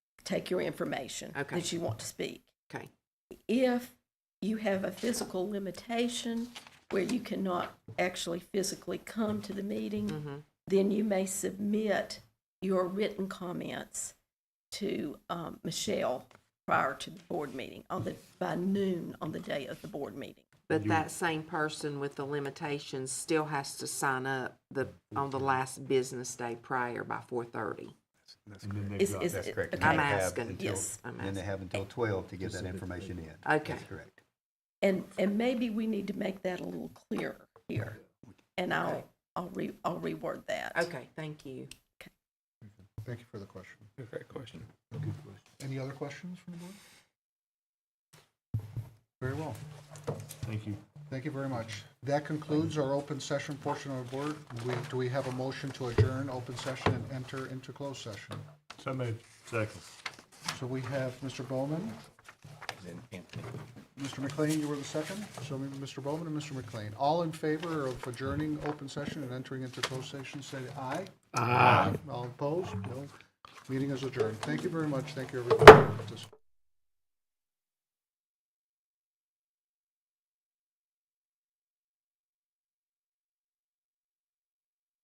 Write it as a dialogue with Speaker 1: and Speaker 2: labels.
Speaker 1: take your information
Speaker 2: Okay.
Speaker 1: that you want to speak.
Speaker 2: Okay.
Speaker 1: If you have a physical limitation where you cannot actually physically come to the
Speaker 2: Mm-hmm.
Speaker 1: meeting, then you may submit your written comments to um, Michelle prior to the board meeting on the, by noon on the day of the board meeting.
Speaker 2: But that same person with the limitations still has to sign up the, on the last business day prior by four thirty.
Speaker 3: And then they've
Speaker 1: Is-
Speaker 3: got-
Speaker 1: is-
Speaker 4: That's correct.
Speaker 1: okay.
Speaker 2: I'm
Speaker 4: They have
Speaker 2: asking.
Speaker 4: until-
Speaker 1: Yes.
Speaker 2: I'm
Speaker 4: Then they
Speaker 2: asking.
Speaker 4: have until twelve to get that information in.
Speaker 2: Okay.
Speaker 4: That's correct.
Speaker 1: And, and maybe we need to make that a little clearer here. And I'll, I'll re, I'll reword that.
Speaker 2: Okay, thank you.
Speaker 5: Thank you for the question.
Speaker 6: Great question.
Speaker 5: Any other questions from the board? Very well.
Speaker 3: Thank you.
Speaker 5: Thank you very much. That concludes our open session portion of the board. We- Do we have a motion to adjourn open session and enter into closed session?
Speaker 3: So moved. Second.
Speaker 5: So we have Mr. Bowman. Mr. McLean, you were the second. So we- Mr. Bowman and Mr. McLean, all in favor of adjourning open session and entering into closed session, say aye. Aye. All opposed? No. Meeting is adjourned. Thank you very much. Thank you, everybody. for participating.